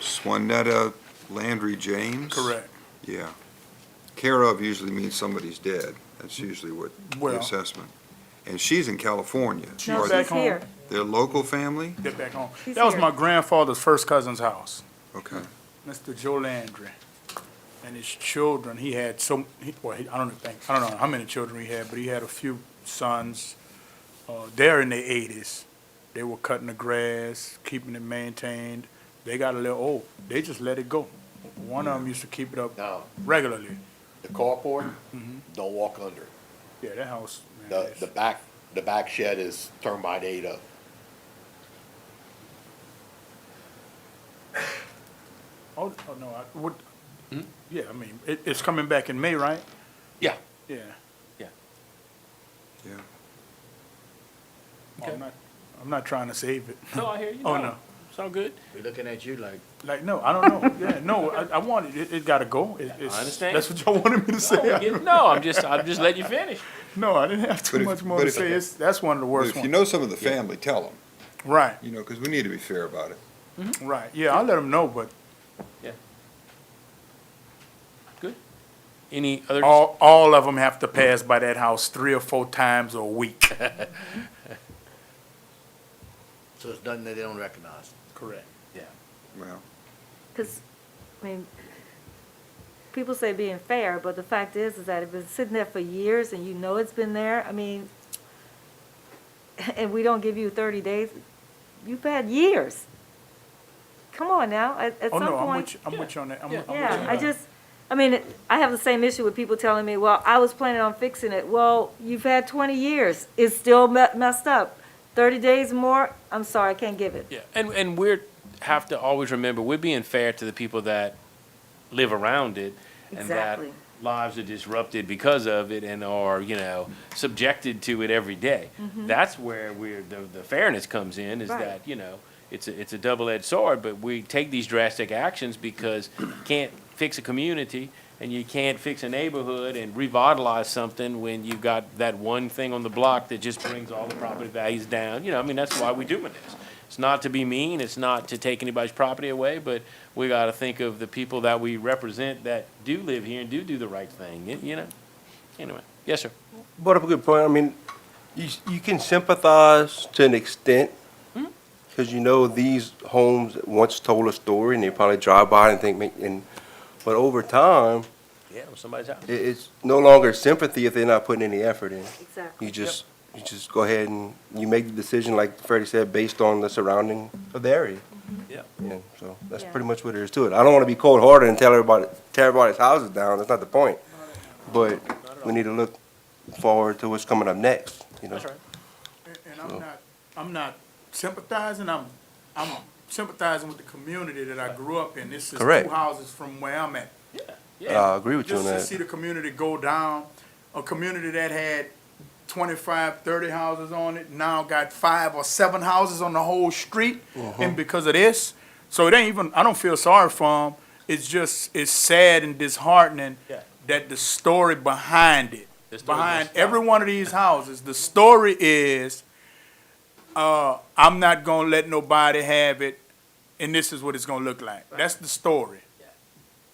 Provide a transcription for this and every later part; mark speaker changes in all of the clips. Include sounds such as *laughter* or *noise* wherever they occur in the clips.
Speaker 1: Juanetta Landry James?
Speaker 2: Correct.
Speaker 1: Yeah. Care of usually means somebody's dead. That's usually what, the
Speaker 2: Well-
Speaker 1: assessment. And she's in California.
Speaker 2: She's
Speaker 1: Are
Speaker 2: She's
Speaker 1: they-
Speaker 2: back home.
Speaker 3: here.
Speaker 1: Their local family?
Speaker 2: Get back home.
Speaker 3: He's
Speaker 2: That was
Speaker 3: here.
Speaker 2: my grandfather's first cousin's house,
Speaker 1: Okay.
Speaker 2: Mr. Joe Landry. And his children, he had so, he- well, he- I don't think, I don't know how many children he had, but he had a few sons. Uh, they're in their eighties. They were cutting the grass, keeping it maintained. They got a little old. They just let it go. One of them used to keep it up
Speaker 4: Now,
Speaker 2: regularly.
Speaker 4: the carport, don't walk under it.
Speaker 2: Yeah, that house, man.
Speaker 4: The,
Speaker 2: that's-
Speaker 4: the back, the back shed is termite ate up.
Speaker 2: Oh, oh, no, I would,
Speaker 4: Hmm?
Speaker 2: yeah, I mean, it, it's coming back in May, right?
Speaker 4: Yeah.
Speaker 2: Yeah.
Speaker 4: Yeah.
Speaker 1: Yeah.
Speaker 2: I'm not, I'm not trying to save it.
Speaker 5: No, I hear you.
Speaker 2: Oh, no.
Speaker 5: It's all
Speaker 2: *laughs*
Speaker 5: good.
Speaker 6: We're looking at you like,
Speaker 2: Like, no, I don't know. Yeah, no, I, I want it. It, it gotta go. It, it's,
Speaker 5: understand.
Speaker 2: That's what y'all wanted me to
Speaker 5: No,
Speaker 2: say.
Speaker 5: we get- no, I'm just, I'm just letting you finish.
Speaker 2: *laughs* No, I didn't have
Speaker 1: But
Speaker 2: too
Speaker 1: if-
Speaker 2: much more
Speaker 1: but
Speaker 2: to
Speaker 1: if-
Speaker 2: say. It's, that's one of the
Speaker 1: But
Speaker 2: worst
Speaker 1: if you
Speaker 2: ones.
Speaker 1: know some of the family, tell them,
Speaker 2: Right,
Speaker 1: you know, because we need to be fair about it.
Speaker 2: right. Yeah, I'll let them know, but
Speaker 5: Any other?
Speaker 2: all, all of them have to pass by that house three or four times a week.
Speaker 6: so it's nothing that they don't recognize.
Speaker 2: Correct.
Speaker 1: Well,
Speaker 3: Because, I mean, people say being fair, but the fact is, is that it's been sitting there for years and you know it's been there, I mean, *laughs* and we don't give you thirty days, you've had years. Come on now, at, at
Speaker 2: Oh,
Speaker 3: some point.
Speaker 2: no, I'm with, you- I'm with you on that. I'm, I'm with you
Speaker 3: Yeah,
Speaker 2: on
Speaker 3: I
Speaker 2: that.
Speaker 3: just, I mean, it- I have the same issue with people telling me, well, I was planning on fixing it. Well, you've had twenty years, it's still me- messed up. Thirty days more, I'm sorry, I can't give it.
Speaker 5: Yeah, and, and we're, have to always remember, we're being fair to the people that live around it. and that
Speaker 3: Exactly.
Speaker 5: Lives are disrupted because of it and are, you know, subjected to it every day. That's where we're, the, the fairness comes in, is
Speaker 3: Mm-hmm. Right.
Speaker 5: that, you know, it's a, it's a double-edged sword, but we take these drastic actions because you can't fix a community and you can't fix a neighborhood and revitalize something when you've got that one thing on the block that just brings all the property values down. You know, I mean, that's why we're doing this. It's not to be mean, it's not to take anybody's property away, but we gotta think of the people that we represent that do live here and do do the right thing, you- you know? Anyway, yes, sir.
Speaker 7: brought up a good point. I mean, you, you can sympathize to an extent because you know these homes once told a story and they probably drive by and think, "Man," and, but over time,
Speaker 5: Yeah, it was somebody's house.
Speaker 7: it, it's no longer sympathy if they're not putting any effort in.
Speaker 3: Exactly.
Speaker 7: You just, you just go ahead and you make the decision, like Freddie said, based on the surrounding of the area.
Speaker 5: Yeah.
Speaker 7: Yeah, so that's
Speaker 3: Mm-hmm. Yeah.
Speaker 7: pretty much what it is to it. I don't want to be cold hearted and tell everybody, tear everybody's houses down. That's not the point. But we need to look forward to what's coming up next, you know?
Speaker 5: That's right.
Speaker 2: And- And I'm not, I'm not sympathizing, I'm, I'm sympathizing with the community that I grew up in. This is two
Speaker 7: Correct.
Speaker 2: houses from where I'm at.
Speaker 7: Uh, I agree with you on
Speaker 2: Just to
Speaker 7: that.
Speaker 2: see the community go down, a community that had 25, 30 houses on it, now got five or seven houses on the whole street.
Speaker 7: Uh-huh.
Speaker 2: And because of this, so it ain't even, I don't feel sorry for them. It's just, it's sad and disheartening
Speaker 5: Yeah.
Speaker 2: that the story behind it,
Speaker 5: The story
Speaker 2: behind
Speaker 5: goes-
Speaker 2: every one of these houses, the story is, uh, I'm not gonna let nobody have it, and this is what it's gonna look like. That's the story.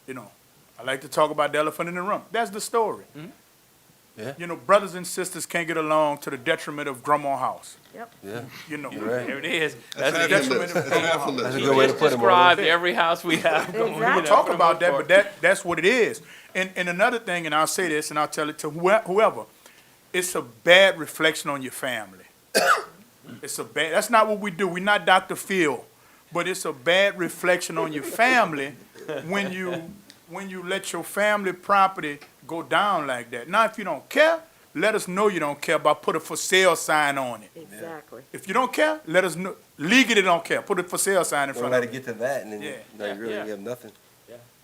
Speaker 2: You know, I like to talk about the elephant in the room. That's the story.
Speaker 5: Mm-hmm.
Speaker 7: Yeah.
Speaker 2: You know, brothers and sisters can't get along to the detriment of Grandma House.
Speaker 7: Yeah.
Speaker 2: You know,
Speaker 7: right.
Speaker 5: There it is.
Speaker 1: that's
Speaker 5: That's
Speaker 1: half
Speaker 5: it.
Speaker 1: the list. That's half the
Speaker 7: That's a
Speaker 1: list.
Speaker 7: good way to
Speaker 5: Just
Speaker 7: put it.
Speaker 5: described every house we have. going, you
Speaker 3: Exactly.
Speaker 5: know,
Speaker 2: talk
Speaker 5: for the
Speaker 2: about
Speaker 5: most
Speaker 2: that, but
Speaker 5: part.
Speaker 2: that, that's what it is. And, and another thing, and I'll say this, and I'll tell it to whoe- whoever, it's a bad reflection on your family. *coughs* It's a bad, that's not what we do. We're not Dr. Phil, but it's a bad reflection on your family when you, when you let your family property go down like that. Now, if you don't care, let us know you don't care by put a for sale sign on it.
Speaker 3: Exactly.
Speaker 2: If you don't care, let us know, legally don't care, put a for sale sign in
Speaker 7: Don't
Speaker 2: front
Speaker 7: let
Speaker 2: of it.
Speaker 7: it get to that and then
Speaker 2: Yeah.
Speaker 7: you- now you really
Speaker 5: Yeah.
Speaker 7: have nothing.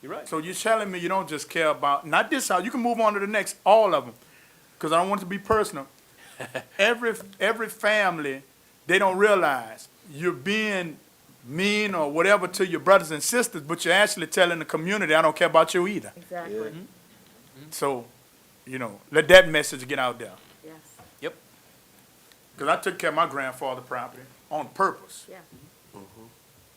Speaker 5: You're right.
Speaker 2: So you're telling me you don't just care about not this house. You can move on to the next, all of them, because I don't want it to be personal. every every family, they don't realize you're being mean or whatever to your brothers and sisters, but you're actually telling the community, I don't care about you either.
Speaker 3: Exactly,
Speaker 2: So, you know, let that message get out there.
Speaker 3: yes,
Speaker 2: Because I took care of my grandfather property on purpose.
Speaker 3: yeah.